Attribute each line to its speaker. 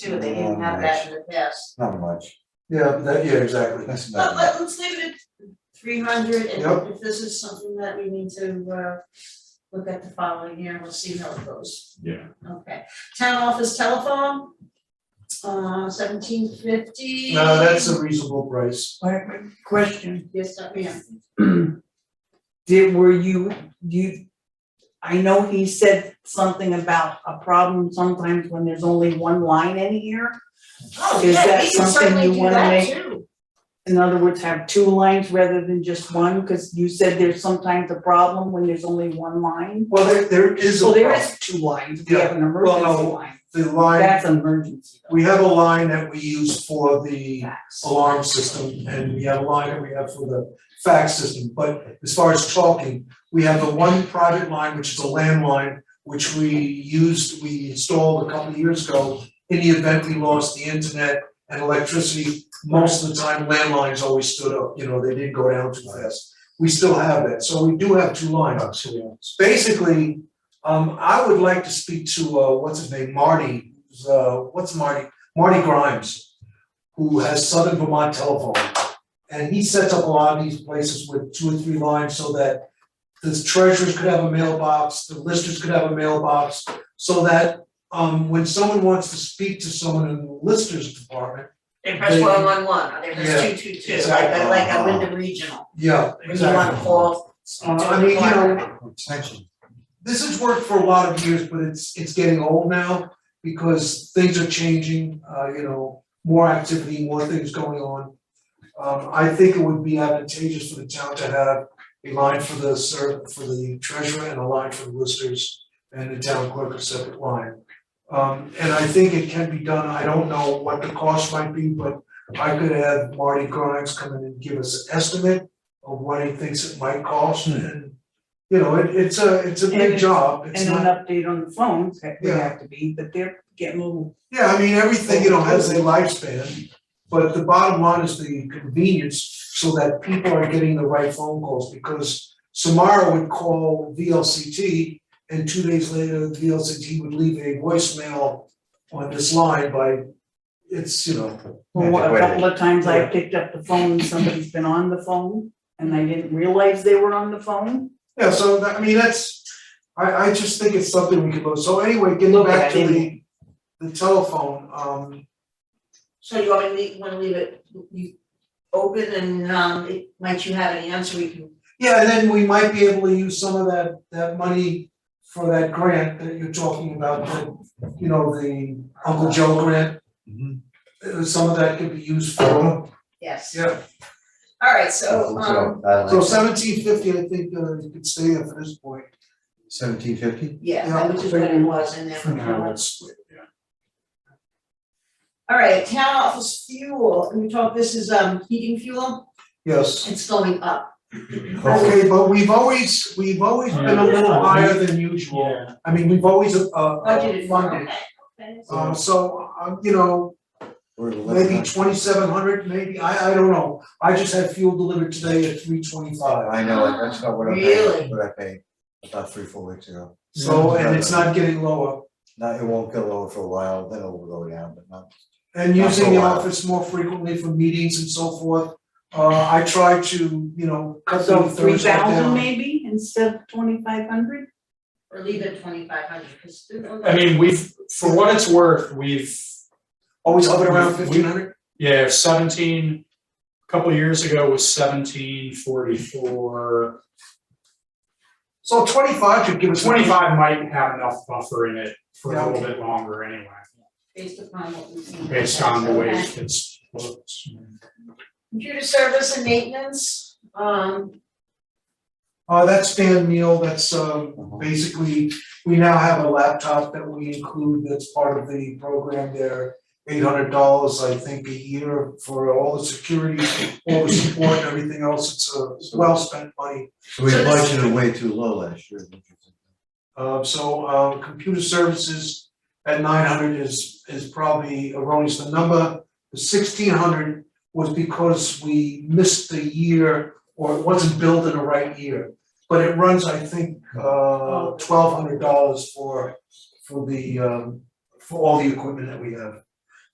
Speaker 1: too, they didn't have that in the past.
Speaker 2: Not much. Yeah, that, yeah, exactly, that's
Speaker 1: But
Speaker 2: not,
Speaker 1: let, let's leave it at three hundred,
Speaker 2: Yep.
Speaker 1: and if this is something that we need to, uh, look at the following year, we'll see how it goes.
Speaker 3: Yeah.
Speaker 1: Okay, town office telephone, uh, seventeen fifty.
Speaker 2: no, that's a reasonable price.
Speaker 4: Wait, wait, question,
Speaker 1: Yes, uh, yeah,
Speaker 4: did, were you, you, I know he said something about a problem sometimes when there's only one line in here.
Speaker 1: oh,
Speaker 4: Is
Speaker 1: yeah,
Speaker 4: that
Speaker 1: we can
Speaker 4: something
Speaker 1: certainly
Speaker 4: you
Speaker 1: do
Speaker 4: wanna
Speaker 1: that
Speaker 4: make?
Speaker 1: too.
Speaker 4: In other words, have two lines rather than just one, cause you said there's sometimes a problem when there's only one line.
Speaker 2: Well, there, there is a.
Speaker 4: So there is two lines, we have an
Speaker 2: well, no,
Speaker 4: emergency line,
Speaker 2: The line,
Speaker 4: that's an emergency though.
Speaker 2: we have a line that we use for the
Speaker 4: Fax.
Speaker 2: alarm system, and we have a line that we have for the fax system, but as far as talking, we have the one private line, which is a landline, which we used, we installed a couple of years ago, in the event we lost the internet and electricity, most of the time landlines always stood up, you know, they didn't go down too fast. We still have that, so we do have two lines. Basically, um, I would like to speak to, uh, what's his name, Marty, who's, uh, what's Marty, Marty Grimes who has Southern Vermont Telephone. And he sets up a lot of these places with two or three lines so that the treasurers could have a mailbox, the listers could have a mailbox. So that um when someone wants to speak to someone in the listers department,
Speaker 1: They press
Speaker 2: They-
Speaker 1: one one one, or they press two two two, like
Speaker 2: exactly.
Speaker 1: a, like a Wyndham Regional,
Speaker 2: yeah,
Speaker 1: when you
Speaker 2: exactly.
Speaker 1: wanna call, speak
Speaker 2: Uh,
Speaker 1: to
Speaker 2: I
Speaker 1: the
Speaker 2: mean, you
Speaker 1: department.
Speaker 2: know, this has worked for a lot of years, but it's it's getting old now because things are changing, uh, you know, more activity, more things going on. Um, I think it would be advantageous for the town to have a line for the ser- for the treasurer and a line for the listers and the town clerk a separate line. Um, and I think it can be done. I don't know what the cost might be, but I could have Marty Grimes come in and give us an estimate of what he thinks it might cost and, you know, it it's a, it's a big
Speaker 4: Hmm. And-
Speaker 2: job, it's
Speaker 4: And
Speaker 2: not.
Speaker 4: an update on the phones, that would
Speaker 2: Yeah.
Speaker 4: have to be, but they're getting a little,
Speaker 2: Yeah, I mean, everything, you know, has a lifespan, but the bottom line is the convenience so that people are getting the right phone calls because Samara would call VLCT and two days later, VLCT would leave a voicemail on this line by, it's, you know,
Speaker 4: well, a couple of times I
Speaker 2: Yeah.
Speaker 4: picked up the phone, somebody's been on the phone, and I didn't realize they were on the phone.
Speaker 2: yeah, so that, I mean, that's, I I just think it's something we could look, so anyway, getting
Speaker 4: Look at
Speaker 2: back to
Speaker 4: it.
Speaker 2: the the telephone, um,
Speaker 1: So you want me to leave, wanna leave it, you open and um, it- might you have an answer, we can,
Speaker 2: Yeah, and then we might be able to use some of that, that money for that grant that you're talking about, the, you know, the Uncle Joe grant. Uh, Some of that could be used for,
Speaker 1: yes.
Speaker 2: yeah,
Speaker 1: Alright, so um,
Speaker 2: so seventeen fifty, I think, uh, you could stay there for this point.
Speaker 5: Seventeen fifty?
Speaker 1: yeah, that was just what it was and then. Alright, town office fuel, can we talk, this is um heating fuel,
Speaker 2: Yes,
Speaker 1: it's going up,
Speaker 2: okay, but we've always, we've always been a little higher than usual. I mean, we've always, uh, uh,
Speaker 1: budgeted for,
Speaker 2: funded,
Speaker 1: okay, okay.
Speaker 2: uh, so, uh, you know, maybe twenty-seven hundred, maybe, I, I don't know. I just had fuel delivered today at three twenty-five,
Speaker 5: I know, that's not what I
Speaker 1: Really?
Speaker 5: paid, what I paid about three, four weeks ago.
Speaker 2: so,
Speaker 3: Mm-hmm.
Speaker 2: and it's not getting lower.
Speaker 5: Now, it won't go lower for a while, then it will go down, but not.
Speaker 2: And
Speaker 5: Not for
Speaker 2: using
Speaker 5: a
Speaker 2: the
Speaker 5: while.
Speaker 2: office more frequently for meetings and so forth, uh, I try to, you know, cut the
Speaker 4: So three
Speaker 2: Thursday
Speaker 4: thousand
Speaker 2: down.
Speaker 4: maybe instead of twenty-five hundred?
Speaker 1: Or leave it twenty-five hundred, cause.
Speaker 3: I mean, we've, for what it's worth, we've,
Speaker 2: Always hovered around
Speaker 3: We-
Speaker 2: fifteen hundred?
Speaker 3: yeah, seventeen, a couple years ago was seventeen forty-four.
Speaker 2: So twenty-five should give us.
Speaker 3: Twenty-five might have enough buffer in it for
Speaker 2: Yeah.
Speaker 3: a little bit longer anyway,
Speaker 1: Based upon what we've seen.
Speaker 3: based on the way
Speaker 1: Okay.
Speaker 3: it's. looked.
Speaker 1: Computer service and maintenance, um,
Speaker 2: Uh, that's Dan Neal, that's, um,
Speaker 5: Mhm.
Speaker 2: basically, we now have a laptop that we include that's part of the program there. Eight hundred dollars, I think, a year for all the security, all the support and everything else, it's a well-spent money.
Speaker 5: So we
Speaker 1: So this-
Speaker 5: budgeted way too low last year.
Speaker 2: Uh, so, uh, computer services at nine hundred is, is probably erroneous, the number, the sixteen hundred was because we missed the year, or it wasn't billed in the right year. But it runs, I think, uh, twelve hundred dollars for, for the, um, for all the equipment that we have.